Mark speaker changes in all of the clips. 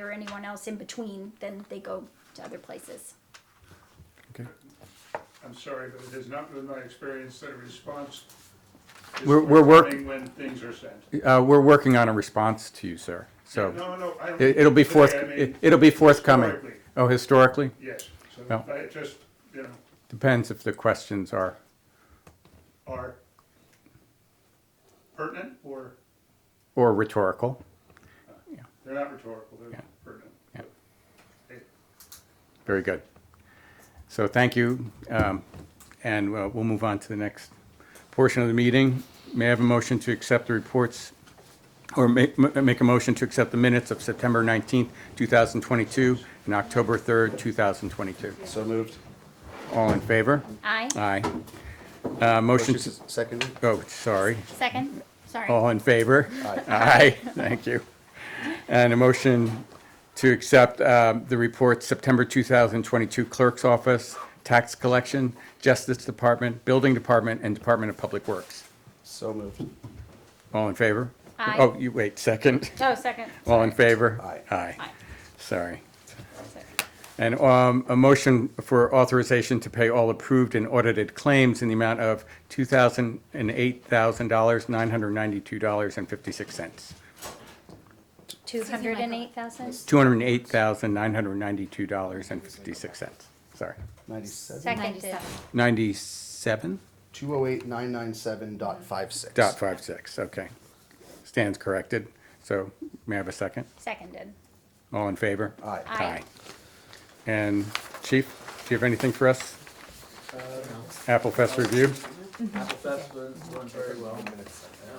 Speaker 1: or anyone else in between, then they go to other places.
Speaker 2: Okay.
Speaker 3: I'm sorry, but it has not been my experience that a response is
Speaker 2: We're- we're work-
Speaker 3: forthcoming when things are sent.
Speaker 2: Uh, we're working on a response to you, sir. So
Speaker 3: No, no, I don't.
Speaker 2: it, it'll be
Speaker 3: today,
Speaker 2: forth,
Speaker 3: I
Speaker 2: it,
Speaker 3: mean,
Speaker 2: it'll be forthcoming.
Speaker 3: historically,
Speaker 2: Oh, historically?
Speaker 3: Yes, so
Speaker 2: No.
Speaker 3: I just, you know,
Speaker 2: Depends if the questions are,
Speaker 3: are pertinent or
Speaker 2: or rhetorical.
Speaker 3: they're not rhetorical,
Speaker 2: Yeah.
Speaker 3: they're pertinent.
Speaker 2: Yeah.
Speaker 3: Hey,
Speaker 2: Very good. So thank you, um, and uh, we'll move on to the next portion of the meeting. May I have a motion to accept the reports, or make, m- make a motion to accept the minutes of September 19th, 2022, and October 3rd, 2022?
Speaker 4: So moved.
Speaker 2: All in favor?
Speaker 1: Aye.
Speaker 2: Aye. Uh, Motion, to-
Speaker 4: Second.
Speaker 2: oh, sorry.
Speaker 1: Second? Sorry.
Speaker 2: All in favor? Aye. thank you. And a motion to accept um, the report, September 2022 Clerk's Office, Tax Collection, Justice Department, Building Department, and Department of Public Works.
Speaker 4: So moved.
Speaker 2: All in favor?
Speaker 1: Aye.
Speaker 2: Oh, you, wait, second.
Speaker 1: Oh, second.
Speaker 2: All in favor?
Speaker 4: Aye.
Speaker 2: Aye,
Speaker 1: Aye.
Speaker 2: sorry.
Speaker 1: Second.
Speaker 2: And um, a motion for authorization to pay all approved and audited claims in the amount of $2,008,992.56.
Speaker 1: Two hundred and eight thousand?
Speaker 2: $208,992.56. Sorry.
Speaker 4: Ninety-seven.
Speaker 1: Seconded.
Speaker 2: 97
Speaker 4: Two oh eight nine nine seven dot five six.
Speaker 2: dot five six. okay. Stands corrected. So may I have a second?
Speaker 1: Seconded.
Speaker 2: All in favor?
Speaker 4: Aye.
Speaker 1: Aye.
Speaker 2: And Chief, do you have anything for us? Apple Fest review?
Speaker 5: Apple Fest went, went very well. Uh,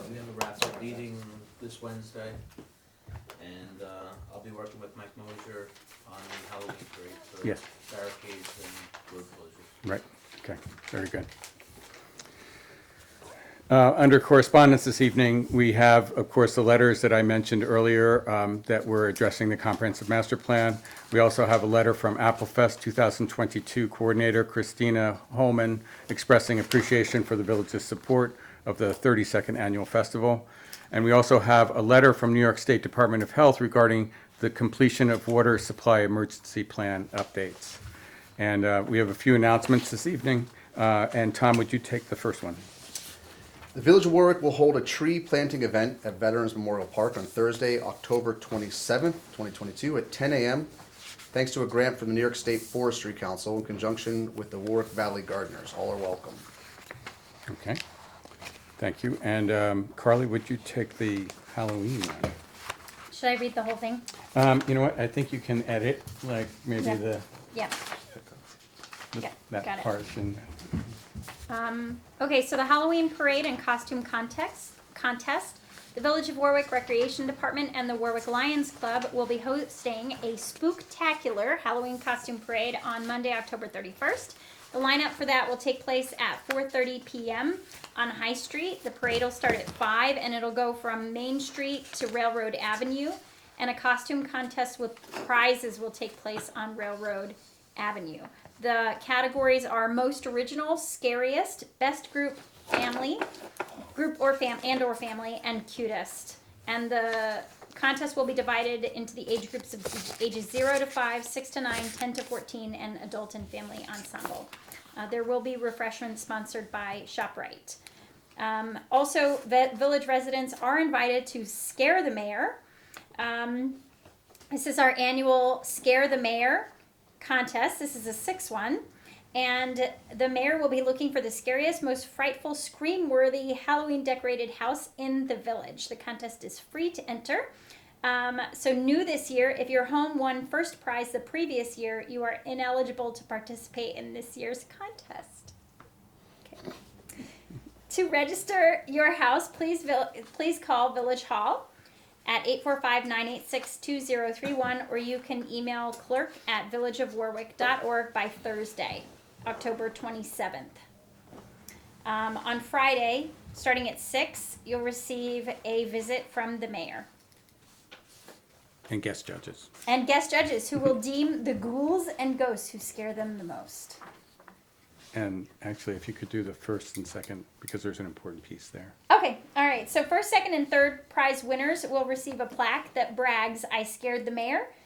Speaker 5: We have a raffle meeting this Wednesday, and uh, I'll be working with Mike Mosier on the Halloween parade for
Speaker 2: Yes.
Speaker 5: barricades and road closures.
Speaker 2: Right, okay, very good. Uh, Under correspondence this evening, we have, of course, the letters that I mentioned earlier um, that were addressing the comprehensive master plan. We also have a letter from Applefest 2022 Coordinator Christina Holman expressing appreciation for the village's support of the 32nd Annual Festival. And we also have a letter from New York State Department of Health regarding the completion of water supply emergency plan updates. And uh, we have a few announcements this evening. Uh, And Tom, would you take the first one?
Speaker 4: The Village of Warwick will hold a tree planting event at Veterans Memorial Park on Thursday, October 27th, 2022, at 10 a.m., thanks to a grant from the New York State Forestry Council in conjunction with the Warwick Valley Gardeners. All are welcome.
Speaker 2: Okay. Thank you. And um, Carly, would you take the Halloween one?
Speaker 1: Should I read the whole thing?
Speaker 2: Um, You know what? I think you can edit, like, maybe
Speaker 1: Yeah.
Speaker 2: the,
Speaker 1: Yeah.
Speaker 2: the-
Speaker 1: Yeah, got
Speaker 2: that
Speaker 1: it.
Speaker 2: part and,
Speaker 1: Okay, so the Halloween parade and costume context contest. The Village of Warwick Recreation Department and the Warwick Lions Club will be hosting a spooktacular Halloween costume parade on Monday, October 31st. The lineup for that will take place at 4:30 p.m. on High Street. The parade will start at 5 and it'll go from Main Street to Railroad Avenue, and a costume contest with prizes will take place on Railroad Avenue. The categories are most original, scariest, best group, family, group or fam and or family, and cutest. And the contest will be divided into the age groups of ages 0 to 5, 6 to 9, 10 to 14, and adult and family ensemble. Uh, there will be refreshments sponsored by ShopRite. Um, also, the village residents are invited to scare the mayor. Um, this is our annual Scare the Mayor contest. This is a sixth one. And the mayor will be looking for the scariest, most frightful, scream worthy Halloween decorated house in the village. The contest is free to enter. Um, so, new this year, if your home won first prize the previous year, you are ineligible to participate in this year's contest. Okay. To register your house, please, vil- please call Village Hall at 845-986-2031 or you can email clerk at villageofwarwick.org by thursday october 27th um, on friday starting at 6 you'll receive a visit from the mayor
Speaker 2: and guest judges.
Speaker 1: and guest judges who will deem the ghouls and ghosts who scare them the most
Speaker 2: And actually, if you could do the first and second, because there's an important piece there.
Speaker 1: Okay, all right. So first, second, and third prize winners will receive a plaque that brags, "I scared the mayor."